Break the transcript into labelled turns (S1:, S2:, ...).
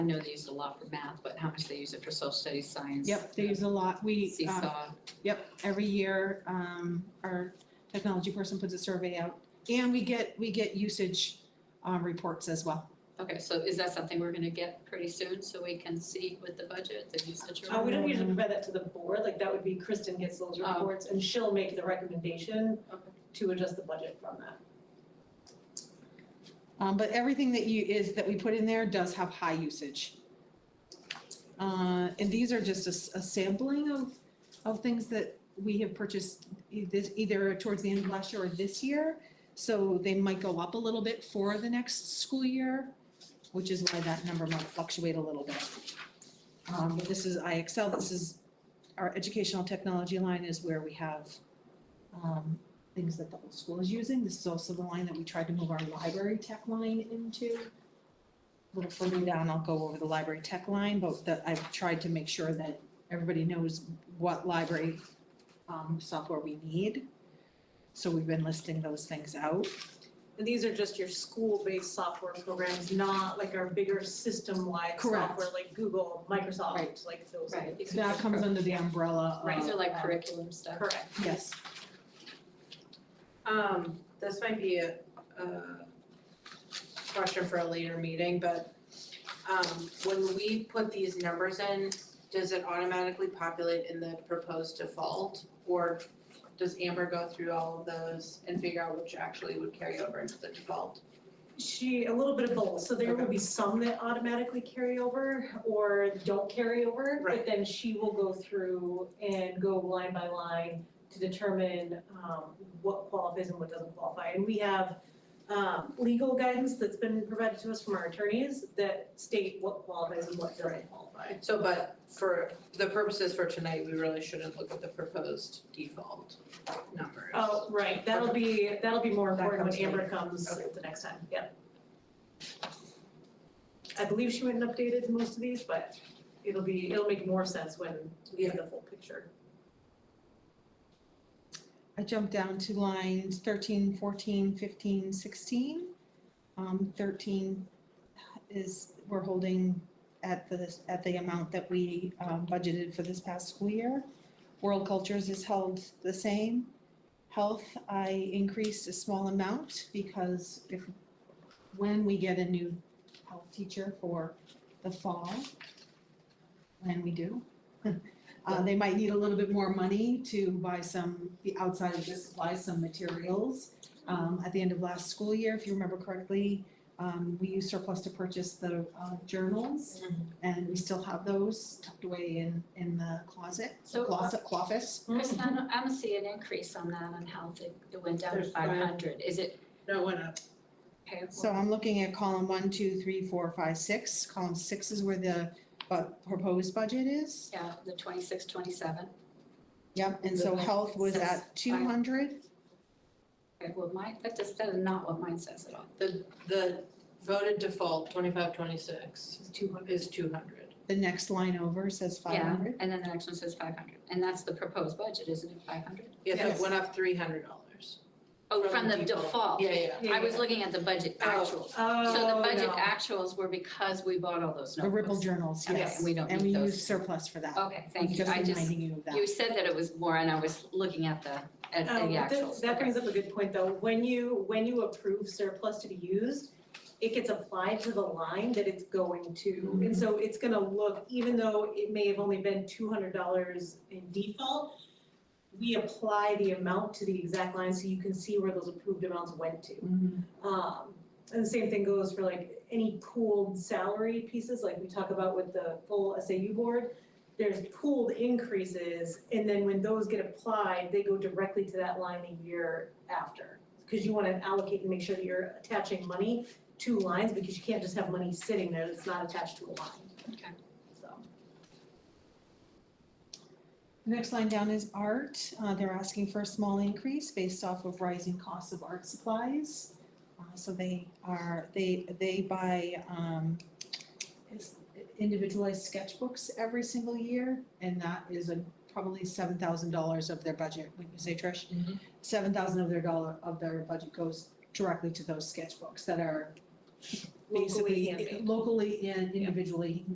S1: I know they use it a lot for math, but how much they use it for social studies, science?
S2: Yep, they use a lot, we, um,
S1: Seesaw,
S2: Yep, every year, um, our technology person puts a survey out, and we get, we get usage, um, reports as well.
S1: okay, so is that something we're gonna get pretty soon, so we can see with the budget, the usage?
S3: Uh,
S1: or-
S3: we don't usually
S2: Um,
S3: provide that to the board, like that would be Kristen gets those
S1: Oh.
S3: reports and she'll make the recommendation
S1: Okay.
S3: to adjust the budget from that.
S2: Um, but everything that you, is, that we put in there does have high usage. Uh, and these are just a, s- a sampling of, of things that we have purchased e- this, either towards the end of last year or this year. So they might go up a little bit for the next school year, which is why that number might fluctuate a little bit. Um, but this is IXL, this is, our educational technology line is where we have, um, things that the whole school is using. This is also the line that we tried to move our library tech line into. A little further down, I'll go over the library tech line, but that I've tried to make sure that everybody knows what library um software we need. So we've been listing those things out.
S3: And these are just your school-based software programs, not like our bigger system-wide
S2: Correct.
S3: software like Google, Microsoft,
S2: Right.
S3: like those.
S1: Right, these are
S2: That
S1: just-
S2: comes under the umbrella of.
S1: Right, these are like
S2: um,
S1: curriculum stuff.
S3: Correct.
S2: Yes,
S4: Um, this might be a, a question for a later meeting, but, um, when we put these numbers in, does it automatically populate in the proposed default? Or does Amber go through all of those and figure out which actually would carry over into the default?
S3: She, a little bit of both, so there will
S4: Okay.
S3: be some that automatically carry over or don't carry over, but
S4: Right.
S3: then she will go through and go line by line to determine um what qualifies and what doesn't qualify, and we have um legal guidance that's been provided to us from our attorneys that state what qualifies and what doesn't qualify.
S4: So, but for the purposes for tonight, we really shouldn't look at the proposed default numbers.
S3: Oh, right, that'll be, that'll be more
S2: That
S3: important when
S2: comes later.
S3: Amber comes
S4: Okay.
S3: the next time, yep. I believe she went and updated most of these, but it'll be, it'll make more sense when we have the full picture.
S2: I jumped down to lines 13, 14, 15, 16. Um, thirteen is, we're holding at the, at the amount that we um, budgeted for this past school year. World Cultures is held the same. Health, I increased a small amount because if, when we get a new health teacher for the fall, when we do, uh, they might need a little bit more money to buy some, the outside of the supply, some materials. Um, at the end of last school year, if you remember correctly, um, we used surplus to purchase the, uh, journals.
S1: Mm-hmm.
S4: Mhm.
S2: And we still have those tucked away in, in the closet,
S1: So, uh,
S2: closet, office.
S1: Kristen, I don't- I don't see an increase on that on health, it it went down to
S4: There's five.
S1: five hundred, is it
S4: No, it went up.
S1: okay?
S2: So I'm looking at column one, two, three, four, five, six. Column six is where the, uh, proposed budget is.
S1: Yeah, the twenty-six, twenty-seven,
S2: Yep, and so health was
S1: Says
S2: at two hundred.
S1: okay, well, mine, that just, that is not what mine says at all.
S4: The, the voted default, twenty-five, twenty-six,
S3: Two hundred.
S4: is two hundred.
S2: The next line over says five hundred.
S1: And then the next one says five hundred, and that's the proposed budget, isn't it, five hundred?
S4: Yeah, so it
S2: Yes.
S4: went up three hundred dollars.
S1: Oh,
S4: From
S1: from the
S4: the default.
S1: default.
S4: Yeah, yeah.
S1: I was looking at the budget
S4: Oh.
S1: actuals.
S3: Oh,
S1: So the budget
S3: no.
S1: actuals were because we bought all those
S2: The
S1: notebooks.
S2: Ripple journals,
S1: Okay,
S2: yes.
S1: and we don't
S2: And we
S1: need those.
S2: use surplus for that.
S1: Okay, thank you,
S2: Just
S1: I just,
S2: reminding you of that.
S1: you said that it was more and I was looking at the, at the
S3: Um, but that-
S1: actuals.
S3: That
S1: Okay.
S3: brings up a good point, though, when you, when you approve surplus to be used, it gets applied to the line that it's going to, and so it's gonna look, even though it may have only been two hundred dollars in default, we apply the amount to the exact line, so you can see where those approved amounts went to.
S2: Mhm.
S3: Um, and the same thing goes for like any pooled salary pieces, like we talk about with the full SAU board. There's pooled increases, and then when those get applied, they go directly to that line a year after. Cause you wanna allocate and make sure that you're attaching money to lines, because you can't just have money sitting there that's not attached to a line.
S1: Okay.
S3: So.
S2: The next line down is art. Uh, they're asking for a small increase based off of rising costs of art supplies. Uh, so they are, they, they buy, um, is- individualized sketchbooks every single year, and that is a, probably seven thousand dollars of their budget, wouldn't you say, Trish?
S3: Mm-hmm.
S4: Mhm.
S2: Seven thousand of their dollar, of their budget goes directly to those sketchbooks that are
S3: Locally
S2: basically,
S3: handmade.
S2: locally and individually